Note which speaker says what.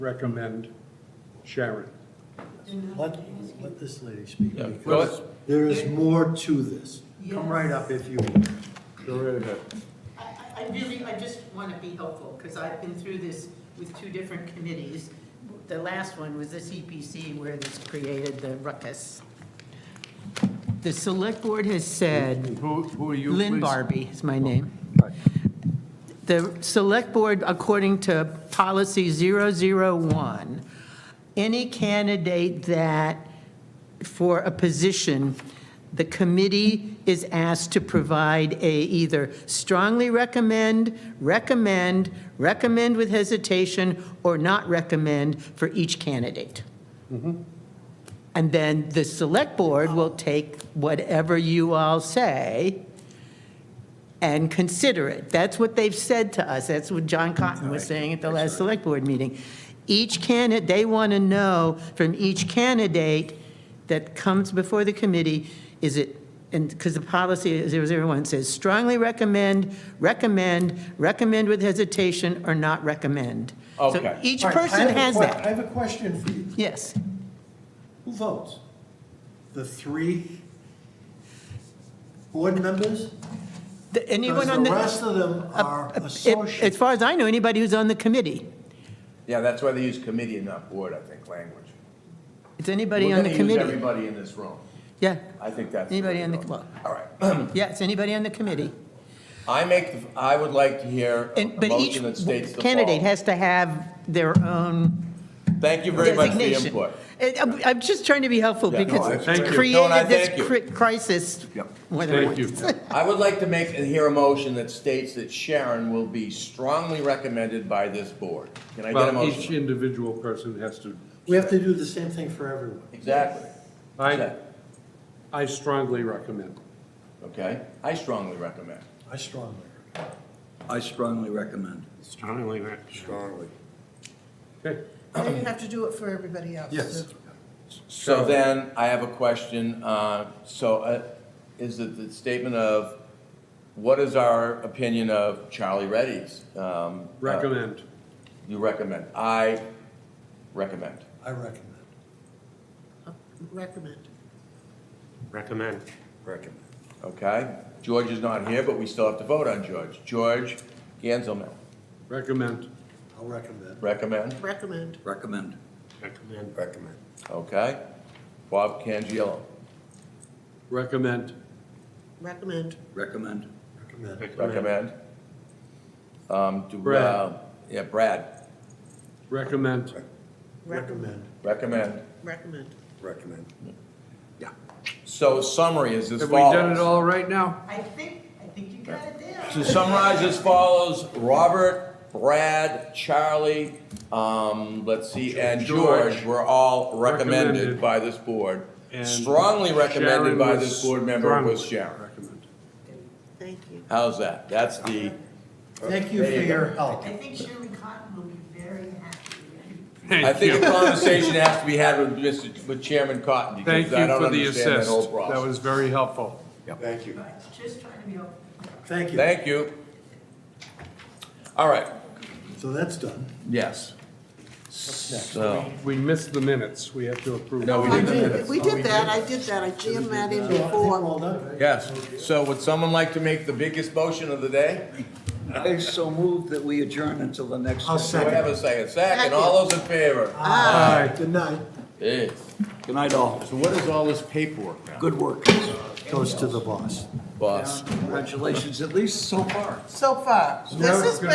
Speaker 1: recommend Sharon.
Speaker 2: Let, let this lady speak,
Speaker 3: Yeah, go
Speaker 2: because
Speaker 3: ahead.
Speaker 2: there is more to this. Come right up if you,
Speaker 3: Go right ahead.
Speaker 4: I, I I really, I just want to be helpful, because I've been through this with two different committees. The last one was the CPC where this created the ruckus. The select board has said,
Speaker 3: Who, who are you,
Speaker 4: Lynn
Speaker 3: please?
Speaker 4: Barbie is my name. The select board, according to policy 001, any candidate that, for a position, the committee is asked to provide a either strongly recommend, recommend, recommend with hesitation, or not recommend for each candidate. And then the select board will take whatever you all say and consider it. That's what they've said to us. That's what John Cotton was saying at the last select board meeting. Each candidate, they want to know from each candidate that comes before the committee, is it, and, because the policy 001 says strongly recommend, recommend, recommend with hesitation, or not recommend.
Speaker 3: Okay.
Speaker 4: So each
Speaker 2: All right, I have
Speaker 4: person
Speaker 2: a
Speaker 4: has
Speaker 2: que- I
Speaker 4: that.
Speaker 2: have a question for you.
Speaker 4: Yes.
Speaker 2: Who votes? The three board members?
Speaker 4: The- Anyone
Speaker 2: Because
Speaker 4: on
Speaker 2: the rest of them
Speaker 4: Uh,
Speaker 2: are
Speaker 4: uh, if- As
Speaker 2: associates.
Speaker 4: far as I know, anybody who's on the committee.
Speaker 5: Yeah, that's why they use committee and not board, I think, language.
Speaker 4: It's anybody
Speaker 5: We're
Speaker 4: on the
Speaker 5: gonna use
Speaker 4: committee.
Speaker 5: everybody in this room.
Speaker 4: Yeah,
Speaker 5: I think that's.
Speaker 4: Anybody
Speaker 5: way
Speaker 4: on
Speaker 5: to
Speaker 4: the-
Speaker 5: go.
Speaker 4: well-
Speaker 5: All right.
Speaker 4: yeah, it's anybody on the committee.
Speaker 5: I make, the- I would like to hear a
Speaker 4: And, but each
Speaker 5: motion that states the
Speaker 4: candidate
Speaker 5: following.
Speaker 4: has to have their own
Speaker 5: Thank you very much for your
Speaker 4: designation.
Speaker 5: input.
Speaker 4: And I'm, I'm just trying to be helpful
Speaker 5: Yeah, no,
Speaker 4: because
Speaker 5: I-
Speaker 4: it's
Speaker 1: Thank you.
Speaker 5: No, and I
Speaker 4: created this
Speaker 5: thank
Speaker 4: cri- crisis
Speaker 5: Yep.
Speaker 4: more than
Speaker 1: Thank you.
Speaker 4: once.
Speaker 5: I would like to make and hear a motion that states that Sharon will be strongly recommended by this board. Can I get a
Speaker 1: Well, each
Speaker 5: motion?
Speaker 1: individual person has to,
Speaker 2: We have to do the same thing for everyone.
Speaker 5: Exactly.
Speaker 1: I, I strongly recommend.
Speaker 5: Okay, I strongly recommend.
Speaker 2: I strongly.
Speaker 6: I strongly recommend.
Speaker 1: Strongly recommend.
Speaker 6: Strongly.
Speaker 1: Okay,
Speaker 7: Then you have to do it for everybody else.
Speaker 1: yes.
Speaker 5: So then, I have a question, uh, so uh, is it the statement of, what is our opinion of Charlie Reddy's? Um, uh,
Speaker 1: Recommend.
Speaker 5: You recommend, I recommend.
Speaker 2: I recommend.
Speaker 7: Recommend.
Speaker 1: Recommend.
Speaker 6: Recommend.
Speaker 5: Okay? George is not here, but we still have to vote on George. George Ganzelman,
Speaker 1: Recommend.
Speaker 2: I'll recommend.
Speaker 5: recommend,
Speaker 7: Recommend.
Speaker 6: Recommend.
Speaker 1: Recommend.
Speaker 6: Recommend.
Speaker 5: okay? Bob Cangiello,
Speaker 1: Recommend.
Speaker 7: Recommend.
Speaker 6: Recommend.
Speaker 2: Recommend.
Speaker 5: recommend. Um, do, uh,
Speaker 1: Brad.
Speaker 5: Yeah, Brad,
Speaker 1: Recommend.
Speaker 2: Recommend.
Speaker 5: recommend.
Speaker 7: Recommend.
Speaker 6: Recommend. Yeah.
Speaker 5: So summary is as
Speaker 1: Have we
Speaker 5: follows.
Speaker 1: done it all right now?
Speaker 4: I think, I think you
Speaker 5: got
Speaker 4: it there.
Speaker 5: To summarize as follows, Robert, Brad, Charlie, um, let's see, and
Speaker 1: George.
Speaker 5: George were all recommended
Speaker 1: Recommended.
Speaker 5: by this board.
Speaker 1: And
Speaker 5: Strongly recommended
Speaker 1: Sharon
Speaker 5: by
Speaker 1: was
Speaker 5: this board member was
Speaker 1: strongly
Speaker 5: Sharon.
Speaker 1: Recommend.
Speaker 7: Thank you.
Speaker 5: How's that? That's the,
Speaker 2: Thank you for
Speaker 5: There you go.
Speaker 2: your help.
Speaker 4: I think Sherman Cotton will be very happy.
Speaker 5: I
Speaker 1: Thank
Speaker 5: think a
Speaker 1: you.
Speaker 5: conversation has to be had with Mr., with Chairman Cotton,
Speaker 1: Thank
Speaker 5: because I
Speaker 1: you
Speaker 5: don't
Speaker 1: for the
Speaker 5: understand that
Speaker 1: assist.
Speaker 5: whole
Speaker 1: That
Speaker 5: process.
Speaker 1: was very helpful.
Speaker 6: Thank you.
Speaker 4: Just trying to be helpful.
Speaker 2: Thank you.
Speaker 5: Thank you. All right,
Speaker 2: So that's done.
Speaker 5: yes. So,
Speaker 1: We missed the minutes. We have to approve.
Speaker 5: no, we
Speaker 7: I
Speaker 5: didn't.
Speaker 7: did, we did that, I did that, I jammed that in before.
Speaker 2: All done.
Speaker 5: Yes, so would someone like to make the biggest motion of the day?
Speaker 6: I so move that we adjourn until the next.
Speaker 2: I'll
Speaker 5: Do I have a second? Second, all those in favor?
Speaker 2: Aye. Good night.
Speaker 5: Yeah.
Speaker 6: Good night, all.
Speaker 5: Uh, So what is all this paperwork now?
Speaker 6: Good work,
Speaker 2: Goes to the boss.
Speaker 5: Boss.
Speaker 6: Congratulations, at least so far.
Speaker 7: So far, this has been